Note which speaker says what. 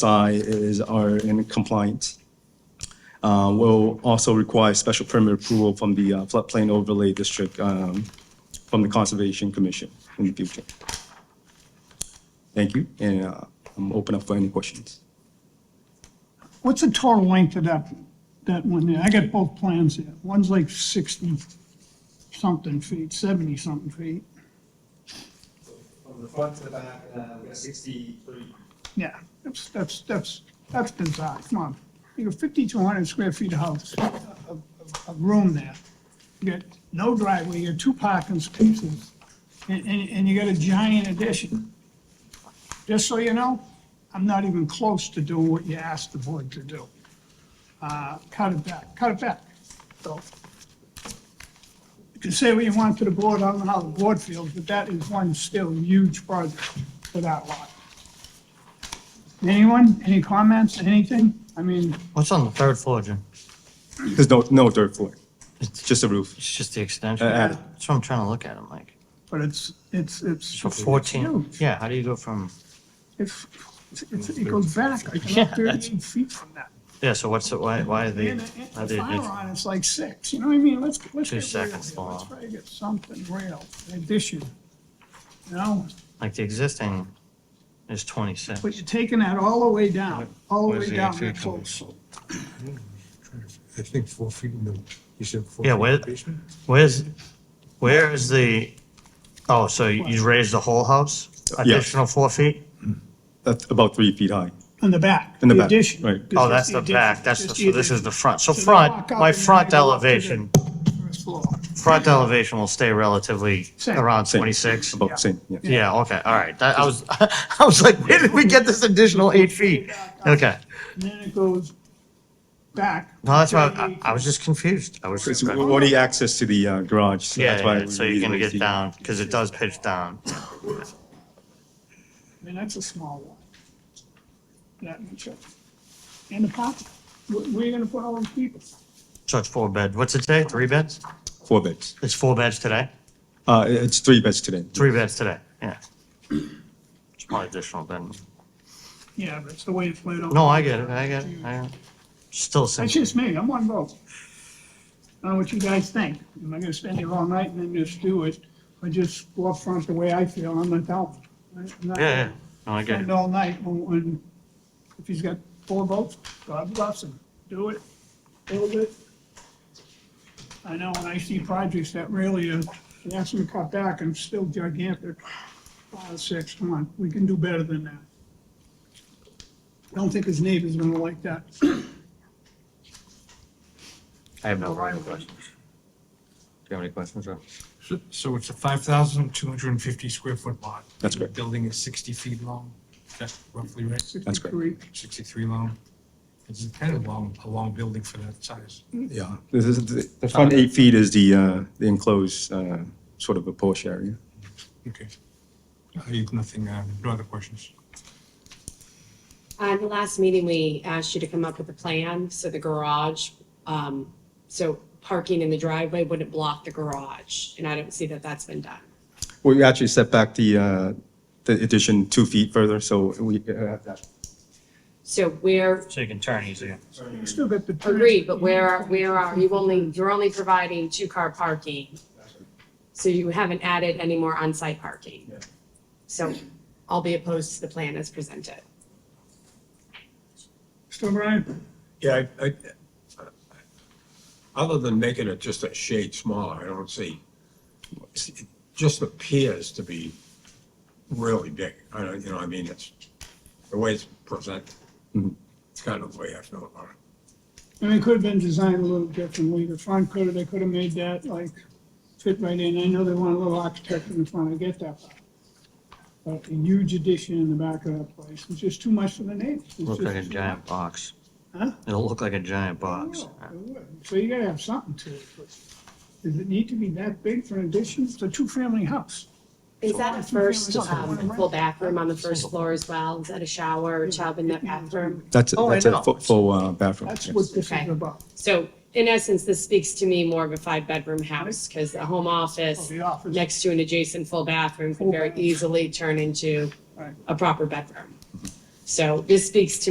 Speaker 1: side is, are in compliance. Uh, Will also require special permit approval from the uh, floodplain overlay district, um, from the Conservation Commission in the future. Thank you, and uh, I'm open up for any questions.
Speaker 2: What's the total length of that, that one there? I got both plans there. One's like sixty something feet, seventy something feet.
Speaker 3: From the front to the back, uh, we got sixty-three.
Speaker 2: Yeah, that's, that's, that's, that's bizarre. Come on. You got fifty-two hundred square feet of house, of, of- of room there. You got no driveway, you got two parking spaces, and, and, and you got a giant addition. Just so you know, I'm not even close to doing what you asked the board to do. Uh, cut it back, cut it back. So. You can say what you want to the board, I don't know how the board feels, but that is one still huge project for that lot. Anyone, any comments, anything? I mean,
Speaker 4: What's on the third floor, Jim?
Speaker 1: There's no, no third floor,
Speaker 4: It's just,
Speaker 1: just a roof.
Speaker 4: it's just the extension.
Speaker 1: Uh, uh,
Speaker 4: That's what I'm trying to look at. I'm like,
Speaker 2: but it's, it's, it's.
Speaker 4: so
Speaker 2: it's
Speaker 4: fourteen,
Speaker 2: huge.
Speaker 4: yeah, how do you go from,
Speaker 2: It's, it's, it goes back, I
Speaker 4: Yeah,
Speaker 2: can
Speaker 4: that's-
Speaker 2: thirty-eight feet from that.
Speaker 4: yeah, so what's, the- why, why are they,
Speaker 2: And
Speaker 4: are
Speaker 2: the- the
Speaker 4: they,
Speaker 2: fire on it's like six, you know what I mean? Let's, let's
Speaker 4: Two
Speaker 2: get real here.
Speaker 4: seconds
Speaker 2: Let's
Speaker 4: long.
Speaker 2: try to get something real, an addition. You know,
Speaker 4: like the existing is twenty-six?
Speaker 2: but you're taking that all the way down, all the
Speaker 4: Where's
Speaker 2: way
Speaker 4: the
Speaker 2: down
Speaker 4: entry
Speaker 2: that
Speaker 4: coming?
Speaker 2: close.
Speaker 5: I think four feet, no, you said four.
Speaker 4: Yeah,
Speaker 5: feet in
Speaker 4: where-
Speaker 5: the basement?
Speaker 4: Where's, where is the, oh, so you you raised the whole house?
Speaker 1: Yeah.
Speaker 4: Additional four feet?
Speaker 1: That's about three feet high.
Speaker 2: In the back.
Speaker 1: In the back,
Speaker 2: addition.
Speaker 1: right.
Speaker 2: This
Speaker 4: Oh,
Speaker 2: is
Speaker 4: that's the
Speaker 2: addition,
Speaker 4: back, that's, the
Speaker 2: just
Speaker 4: so this is
Speaker 2: addition.
Speaker 4: the front. So
Speaker 2: So they
Speaker 4: front,
Speaker 2: walk up
Speaker 4: my
Speaker 2: and then
Speaker 4: front
Speaker 2: they go up to the
Speaker 4: elevation,
Speaker 2: First floor.
Speaker 4: front elevation will stay relatively
Speaker 2: Same.
Speaker 4: around
Speaker 1: Same.
Speaker 4: twenty-six.
Speaker 1: About the same, yeah.
Speaker 4: Yeah, okay, all right. That, I was, I was like, where did we get this additional eight feet? Okay.
Speaker 2: And then it goes back.
Speaker 4: No, that's why I,
Speaker 2: 38
Speaker 4: I was just confused. I was
Speaker 1: It's
Speaker 4: just, yeah,
Speaker 1: only access to the uh, garage, so that's why.
Speaker 4: yeah, so
Speaker 1: we
Speaker 4: you're gonna
Speaker 1: really
Speaker 4: get
Speaker 1: see-
Speaker 4: down, because it does pitch down.
Speaker 2: I mean, that's a small one. That much. of it. And the parking, where, where you gonna put all those people?
Speaker 4: So it's four bed. What's it today? Three beds?
Speaker 1: Four beds.
Speaker 4: It's four beds today?
Speaker 1: Uh, it's three beds today.
Speaker 4: Three beds today, yeah. It's probably additional then.
Speaker 2: Yeah, but it's the way it's laid out.
Speaker 4: No, I get it, I get it, I get it. Still
Speaker 2: That's
Speaker 4: simple.
Speaker 2: just me, I'm one vote. I don't know what you guys think. Am I gonna spend here all night and then just do it? Or just go up front the way I feel, I'm not telling. I'm not-
Speaker 4: Yeah, yeah, no, I get
Speaker 2: Spend
Speaker 4: it.
Speaker 2: all night when, when, if he's got four votes, God bless him, do it, build it. I know when I see projects that really are, they ask them to cut back and still gigantic, five, six, come on, we can do better than that. I don't think his neighbor's gonna like that.
Speaker 4: I have no
Speaker 2: Right
Speaker 4: further
Speaker 2: away.
Speaker 4: questions. Do you have any questions, Rob?
Speaker 5: So- So it's a five thousand two hundred and fifty square foot lot.
Speaker 1: That's
Speaker 5: The
Speaker 1: correct.
Speaker 5: Building is sixty feet long, that's roughly right,
Speaker 1: That's correct.
Speaker 2: 63.
Speaker 5: sixty-three long. It's kind of long, a long building for that size.
Speaker 1: Yeah, this is, the- the front eight feet is the, uh, the enclosed, uh, sort of a porch area.
Speaker 5: Okay. I have nothing, uh, no other questions.
Speaker 6: Uh, the last meeting, we asked you to come up with a plan, so the garage, um, so parking in the driveway wouldn't block the garage, and I don't see that that's been done.
Speaker 1: We actually set back the, uh, the addition two feet further, so we, uh,
Speaker 6: So where,
Speaker 4: So you can turn easier.
Speaker 2: You still got the.
Speaker 6: agreed, but where, where are, you only, you're only providing two-car parking. So you haven't added any more on-site parking. So I'll be opposed to the plan as presented.
Speaker 2: Still Brian?
Speaker 7: Yeah, I, I, other than making it just a shade smaller, I don't see, it just appears to be really big. I don't, you know, I mean, it's, the way it's presented, it's kind of the way I feel about it.
Speaker 2: And it could have been designed a little differently, the front could have, they could have made that like fit right in, I know they want a little architect in the front, I get that. part. But a huge addition in the back of that place, it's just too much for the neighbors. It's
Speaker 4: Look
Speaker 2: just
Speaker 4: like a
Speaker 2: too
Speaker 4: giant box.
Speaker 2: Huh? Oh.
Speaker 4: It'll look like a giant
Speaker 2: much.
Speaker 4: box.
Speaker 2: Yeah, it would. So you gotta have something to it, but does it need to be that big for an addition, it's a two-family house?
Speaker 6: Is that a first, um, full bathroom on the first floor as well? Is that a shower, tub in that bathroom?
Speaker 1: that's,
Speaker 4: Oh, I
Speaker 1: that's a
Speaker 4: know.
Speaker 1: fu- full, uh, bathroom.
Speaker 2: That's
Speaker 1: yes.
Speaker 2: what this
Speaker 6: Okay.
Speaker 2: is about,
Speaker 6: So in essence, this speaks to me more of a five-bedroom house, because the home
Speaker 2: Oh,
Speaker 6: office
Speaker 2: the office.
Speaker 6: next to an adjacent full bathroom can very easily turn into
Speaker 2: Right.
Speaker 6: a proper bedroom. So this speaks to